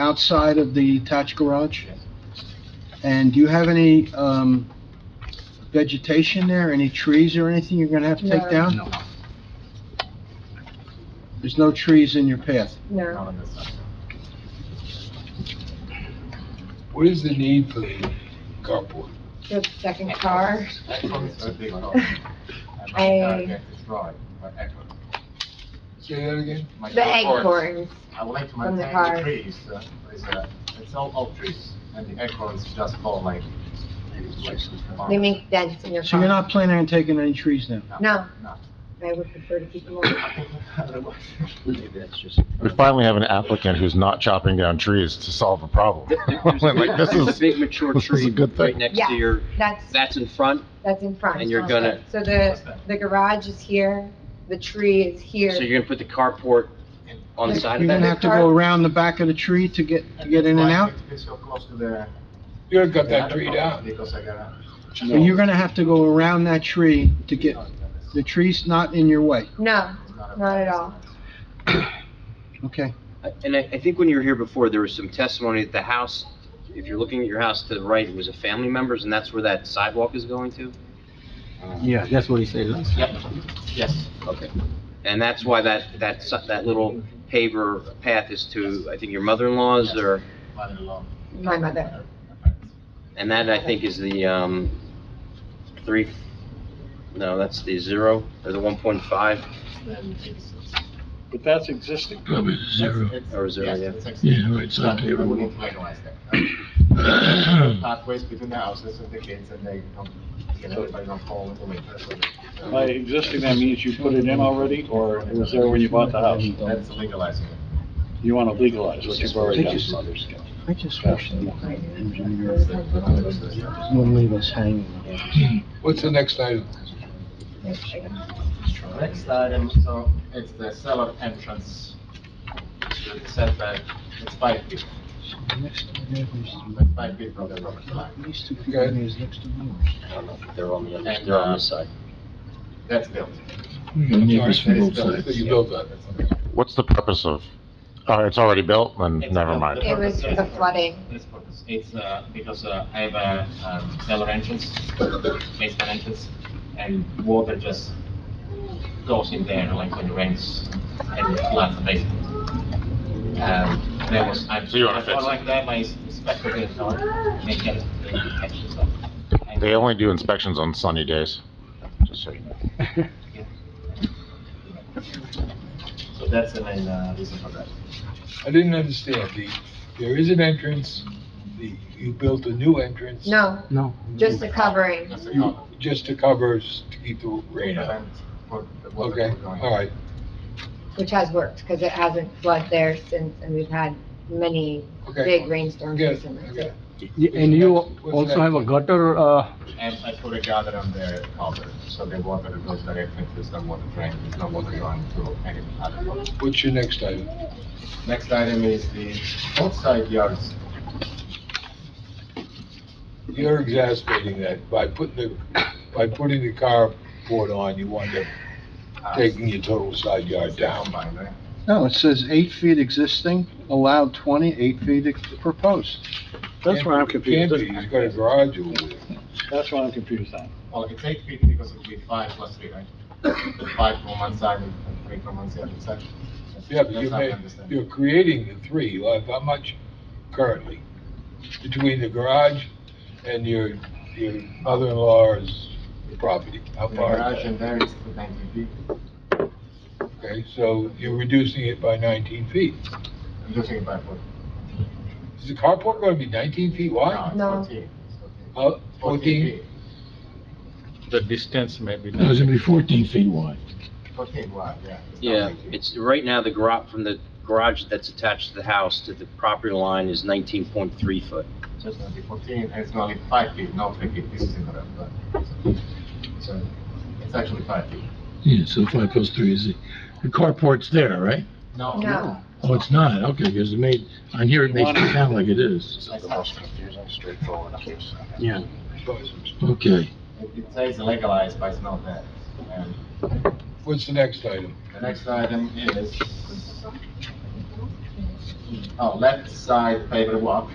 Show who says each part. Speaker 1: outside of the attached garage? And do you have any um, vegetation there, any trees or anything you're going to have to take
Speaker 2: No.
Speaker 1: down?
Speaker 3: No,
Speaker 1: There's no trees in your path.
Speaker 2: No,
Speaker 3: not on this side.
Speaker 4: What is the need for the carport?
Speaker 2: the second car.
Speaker 5: I.
Speaker 4: Say that again?
Speaker 2: The acorns.
Speaker 5: I would like to
Speaker 2: From the
Speaker 5: maintain
Speaker 2: car.
Speaker 5: the trees, uh, it's, uh, it's all oak trees, and the acorns just fall like, maybe like.
Speaker 2: They make dents in your
Speaker 1: So you're
Speaker 2: car.
Speaker 1: not planning on taking any trees down?
Speaker 2: No.
Speaker 5: No.
Speaker 2: I would prefer to keep them all.
Speaker 6: We finally have an applicant who's not chopping down trees to solve a problem. Like, this
Speaker 7: There's a
Speaker 6: is-
Speaker 7: big mature
Speaker 6: this is a
Speaker 7: tree
Speaker 6: good
Speaker 7: right
Speaker 6: thing.
Speaker 7: next
Speaker 2: Yeah.
Speaker 7: to your,
Speaker 2: That's,
Speaker 7: that's in front,
Speaker 2: that's in front.
Speaker 7: And you're gonna-
Speaker 2: So the, the garage is here, the tree is here.
Speaker 7: so you're gonna put the carport on the side
Speaker 1: You're
Speaker 7: of
Speaker 1: going to
Speaker 7: that?
Speaker 1: have to go around the back of the tree to get, to get in and out?
Speaker 5: It's so close to the.
Speaker 4: You gotta cut that tree down.
Speaker 5: Because I gotta.
Speaker 1: So you're going to have to go around that tree to get,
Speaker 5: It's
Speaker 1: the tree's not in your way,
Speaker 2: No,
Speaker 5: not a-
Speaker 2: not at all.
Speaker 1: okay?
Speaker 7: And I, I think when you were here before, there was some testimony that the house, if you're looking at your house to the right, it was a family member's, and that's where that sidewalk is going to?
Speaker 8: Yeah, that's what he said.
Speaker 7: Yes. Okay. And that's why that, that, si- that little paver path is to, I think, your mother-in-law's, or,
Speaker 5: Not alone.
Speaker 2: My mother.
Speaker 7: and that, I think, is the, um, three, no, that's the zero, or the one point five,
Speaker 5: Then it's-
Speaker 9: But that's existing.
Speaker 4: Probably zero.
Speaker 5: it's-
Speaker 7: Or zero,
Speaker 5: yes,
Speaker 7: yeah.
Speaker 5: it's actually-
Speaker 4: Yeah, it's
Speaker 5: No,
Speaker 4: not
Speaker 5: I wouldn't recognize that. Pathways between the houses and the kids and they don't, you know, everybody don't fall in the way. That's what it-
Speaker 9: By existing, that means you put it in already, or it was there when you bought the house?
Speaker 5: That's legalizing it.
Speaker 9: You want to legalize what you've already done.
Speaker 1: I just wish the engineer
Speaker 5: It's
Speaker 1: wouldn't leave us hanging.
Speaker 4: What's the next item?
Speaker 5: true. Next item, so it's the cellar entrance It's setback. It's five feet, it's five feet from the property line.
Speaker 1: These two companies next to yours.
Speaker 7: I don't know, if they're on the other, they're on this side.
Speaker 5: That's built.
Speaker 4: Hmm, Sorry, that You built that.
Speaker 6: What's the purpose of, oh, it's already built, then
Speaker 5: It's
Speaker 6: never
Speaker 5: built.
Speaker 6: mind.
Speaker 2: It was for the flooding.
Speaker 5: This purpose, it's, uh, because, uh, I have a, um, cellar entrance, basement entrance, and water just goes in there, like when it rains, and it floods the basement. Um, there was, I,
Speaker 6: So you wanna
Speaker 5: I
Speaker 6: fix it?
Speaker 5: like that, my spectacles are, they can, they can catch it, so. And-
Speaker 6: They only do inspections on sunny days, just so you know.
Speaker 5: So that's the main, uh, reason for that.
Speaker 4: I didn't understand. The, there is an entrance, the, you built a new entrance.
Speaker 2: No,
Speaker 8: No.
Speaker 2: just a covering.
Speaker 5: That's the
Speaker 4: You,
Speaker 5: problem.
Speaker 4: just to cover, s- to keep the rain out.
Speaker 5: Prevent what- what we're
Speaker 4: Okay,
Speaker 5: going.
Speaker 4: all right.
Speaker 2: which has worked, because it hasn't flooded there since, and we've had many
Speaker 4: Okay.
Speaker 2: big rainstorms
Speaker 4: Okay,
Speaker 2: recently.
Speaker 4: okay.
Speaker 8: And you also have a gutter, uh,
Speaker 5: And I put a gutter on the cover, so the water goes directly to someone drain, it's not water going to any other one.
Speaker 4: What's your next item?
Speaker 5: Next item is the outside yards.
Speaker 4: You're exacerbating that by putting the, by putting the carport on, you wind up
Speaker 5: uh,
Speaker 4: taking your total side yard down.
Speaker 5: Combined, right?
Speaker 1: No, it says eight feet existing, allowed 20, eight feet ex- proposed.
Speaker 9: That's where I'm
Speaker 4: Can't
Speaker 9: confused.
Speaker 4: be, he's got a garage over there.
Speaker 9: That's what I'm confused on.
Speaker 5: Well, it's eight feet because it would be five plus three, right? Five from one side and and three from one side, is that?
Speaker 4: Yeah, but
Speaker 5: that's
Speaker 4: you're,
Speaker 5: how I
Speaker 4: ma-
Speaker 5: understand it.
Speaker 4: you're creating the three, you have how much currently? Between the garage and your, your mother-in-law's property, how
Speaker 5: The
Speaker 4: far
Speaker 5: garage
Speaker 4: is
Speaker 5: and
Speaker 4: that?
Speaker 5: there is the nineteen feet,
Speaker 4: Okay, so you're reducing it by nineteen feet.
Speaker 5: I'm losing it by foot.
Speaker 4: Is the carport gonna be nineteen feet
Speaker 5: No,
Speaker 4: wide?
Speaker 5: it's
Speaker 2: No.
Speaker 5: 14. It's 14.
Speaker 4: Uh,
Speaker 5: feet.
Speaker 4: fourteen?
Speaker 3: The distance maybe.
Speaker 4: it's gonna be fourteen feet wide.
Speaker 5: Fourteen wide, yeah. It's not
Speaker 7: Yeah,
Speaker 5: 19.
Speaker 7: it's, right now, the garage, from the garage that's attached to the house to the property line is nineteen point three foot.
Speaker 5: So it's gonna be fourteen, and it's only five feet, not three feet, this is incorrect, but, so, it's actually five feet.
Speaker 10: Yeah, so five plus three is, the carport's there, right?
Speaker 5: No.
Speaker 2: No.
Speaker 10: Oh, it's not, okay, because it made, on here it makes it sound like it is.
Speaker 5: It's not.
Speaker 8: yeah.
Speaker 5: It
Speaker 10: Okay.
Speaker 5: it says legalized, but it's not Um, that. And
Speaker 4: What's the next item?
Speaker 5: the next item is Oh, left side favorable,